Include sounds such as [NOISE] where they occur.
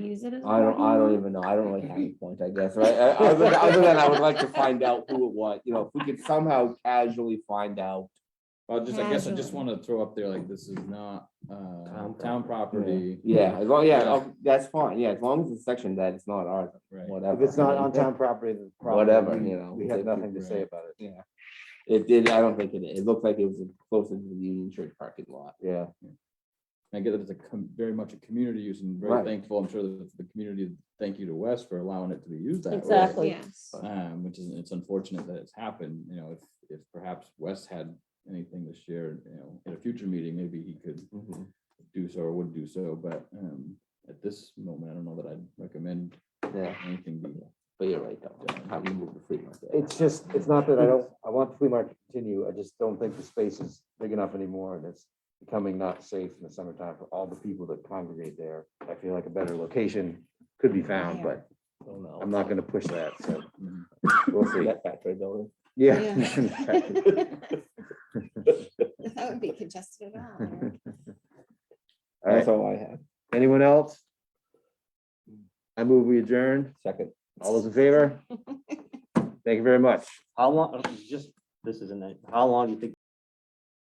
use it as? a I don't, parking I don't lot? even know. I don't really have a point, I guess, right? Uh, Other than, other than I would like to find out who it was, you know, if we could somehow casually find out. Well, just, I guess I just Casually. wanna throw up there, like, this is not, uh, Town town property. Yeah, as long, yeah, Yeah. oh, that's fine. Yeah, as long as it's section that it's not ours, Right, whatever. If it's not on town property, then. [LAUGHS] probably Whatever, we- you know, We have it's- nothing to say right. about it. Yeah. It did, I don't think it, it looked like it was closer to the Union Church parking lot. Yeah. I get that it's a, com- very much a community use and very Right. thankful, I'm sure that the community, thank you to Wes for allowing it to be used that way. Exactly. Yes. Um, which is, it's unfortunate that it's happened, you know, if, if perhaps Wes had anything to share, you know, at a future meeting, maybe he could mm-hmm, do so or would do so, but, um, at this moment, I don't know that I'd recommend Yeah, anything be but you're right, though. I mean, we'll free market. It's just, it's not that I don't, I want the flea market to continue. I just don't think the space is big enough anymore and it's becoming not safe in the summertime for all the people that congregate there. I feel like a better location could be found, but I don't know. I'm not gonna push that, so Mhm. we'll see. That factory building. [LAUGHS] [LAUGHS] Yeah. [LAUGHS] That would be congested at all. [LAUGHS] Eric. [LAUGHS] All right, That's all I have. anyone else? I move we adjourn. Second. All those in favor? Thank you very much. How long, uh, just, this is a night, how long do you think